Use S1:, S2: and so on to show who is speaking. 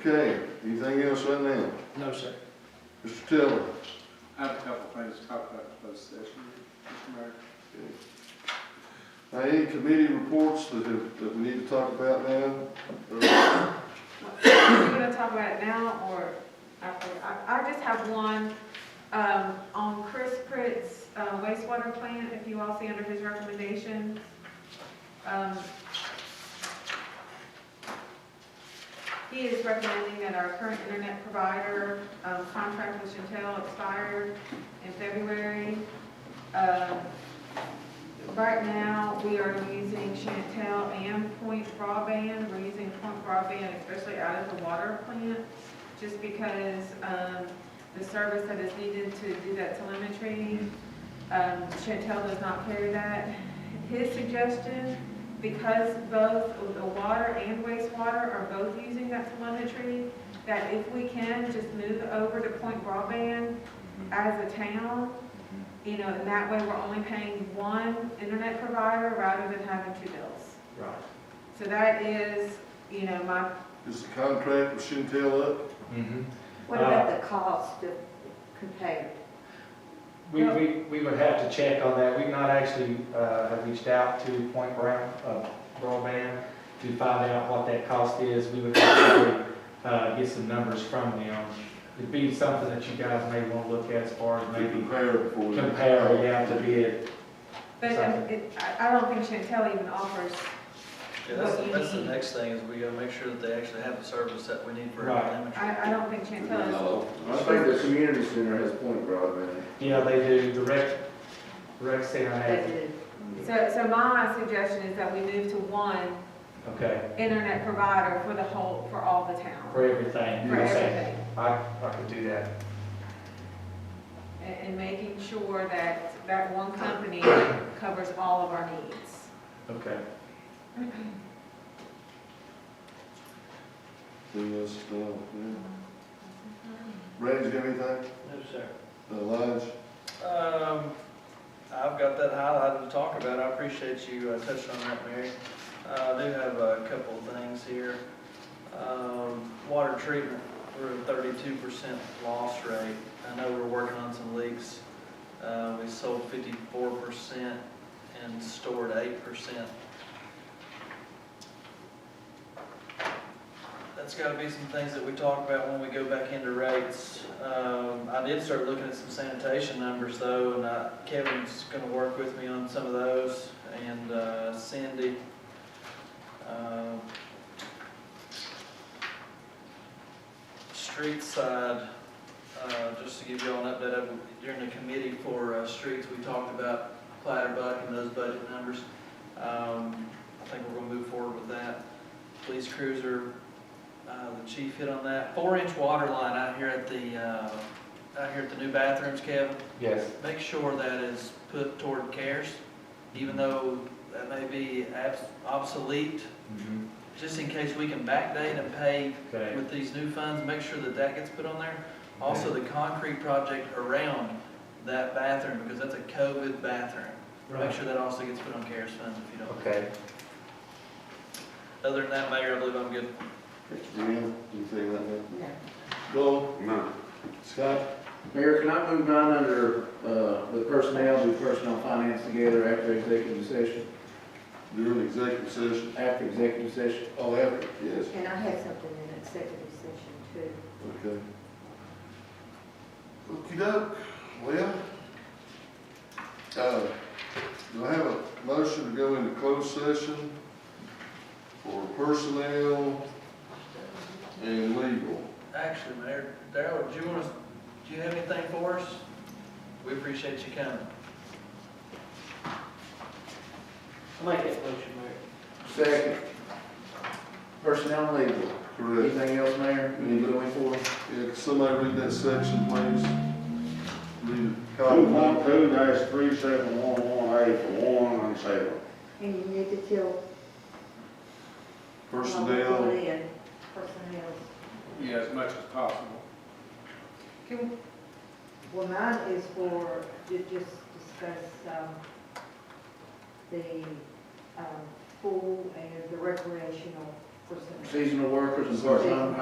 S1: Okay, anything else on that?
S2: No, sir.
S1: Mr. Tiller?
S3: I have a couple things to talk about in closed session, Mr. Mayor.
S1: Now, any committee reports that, have- that we need to talk about now?
S4: Are we gonna talk about it now, or after? I, I just have one, um, on Chris Pritt's uh, wastewater plant, if you all see under his recommendations. Um, He is recommending that our current internet provider, um, contract with Chantel expired in February. Um, Right now, we are using Chantel and Point broadband. We're using Point broadband especially out of the water plant, just because um, the service that is needed to do that telemetry, um, Chantel does not carry that. His suggestion, because both the water and wastewater are both using that telemetry, that if we can, just move over to Point broadband as a town, you know, and that way we're only paying one internet provider rather than having two bills.
S2: Right.
S4: So that is, you know, my,
S1: Is the contract with Chantel up?
S2: Mm-hmm.
S5: What about the cost of container?
S2: We, we, we would have to check on that. We've not actually, uh, have reached out to Point Brown, uh, Broadband to find out what that cost is. We would have to, uh, get some numbers from them. It'd be something that you guys may want to look at as far as
S1: To
S2: maybe
S1: compare it for you?
S2: compare, we have to bid.
S4: but um, it- I, I don't think Chantel even offers,
S6: Yeah, that's,
S4: What you
S6: that's the
S4: need.
S6: next thing, is we gotta make sure that they actually have the service that we need for
S2: Right.
S6: our image.
S4: I, I don't think Chantel is.
S1: No.
S7: I think the community center has point broadband.
S2: Yeah, they do, the rec, rec center has,
S5: budgeted?
S4: So, so my suggestion is that we move to one
S2: okay,
S4: internet provider for the whole, for all the town,
S2: for everything.
S4: for
S2: you're saying.
S4: everything.
S2: I, I could do that.
S4: And, and making sure that that one company covers all of our needs.
S2: Okay.
S1: Anything else, uh, yeah? Randy's got anything?
S6: No, sir.
S1: Uh, Lige?
S6: Um, I've got that highlighted to talk about, I appreciate you uh, touching on that, Mary. Uh, I do have a couple of things here. Um, water treatment, we're at thirty-two percent loss rate. I know we're working on some leaks. Uh, we sold fifty-four percent and stored eight percent. That's gotta be some things that we talk about when we go back into rates. Um, I did start looking at some sanitation numbers though, and uh, Kevin's gonna work with me on some of those, and uh, Cindy. Um, Street side, uh, just to give you all an update, of- during the committee for uh, streets, we talked about Clatterbuck and those budget numbers. Um, I think we're gonna move forward with that. Police cruiser, uh, the chief hit on that. Four-inch water line out here at the, uh, out here at the new bathrooms, Kevin.
S2: Yes.
S6: Make sure that is put toward cares,
S2: Mm-hmm.
S6: even though that may be abs- obsolete,
S2: Mhm.
S6: just in case we can backdate and pay
S2: Okay.
S6: with these new funds, make sure that that gets put on there. Also, the concrete project around that bathroom, because that's a COVID bathroom. Make
S2: Right.
S6: sure that also gets put on cares funds if you don't.
S2: Okay.
S6: Other than that, Mayor, I believe I'm good.
S1: Jim, anything like that?
S5: No.
S1: Joel? Scott?
S7: Mayor, can I move mine under, uh, the personnel, do personnel finance together after executive session,
S1: During executive session?
S7: after executive session?
S1: Oh, after. Yes,
S5: And I had something in executive session too.
S1: okay. Okey doke, well, uh, do I have a motion to go into closed session for personnel and legal?
S6: Actually, Mayor, Darrell, do you want us, do you have anything for us? We appreciate you coming.
S3: Make that motion, Mayor.
S7: Second. Personnel and legal.
S1: Correct.
S7: Anything else, Mayor, we need to go in for?
S1: Yeah, could somebody read that section, please? Read it.
S8: Two point two dash three seven one one eight for one and seven.
S5: And you need to tell.
S1: Personnel.
S5: Lynn, Personnel.
S3: Yeah, as much as possible.
S4: Can,
S5: Well, mine is for, to just discuss, um, the, um, pool and the recreational personnel.
S7: Seasonal workers and part-time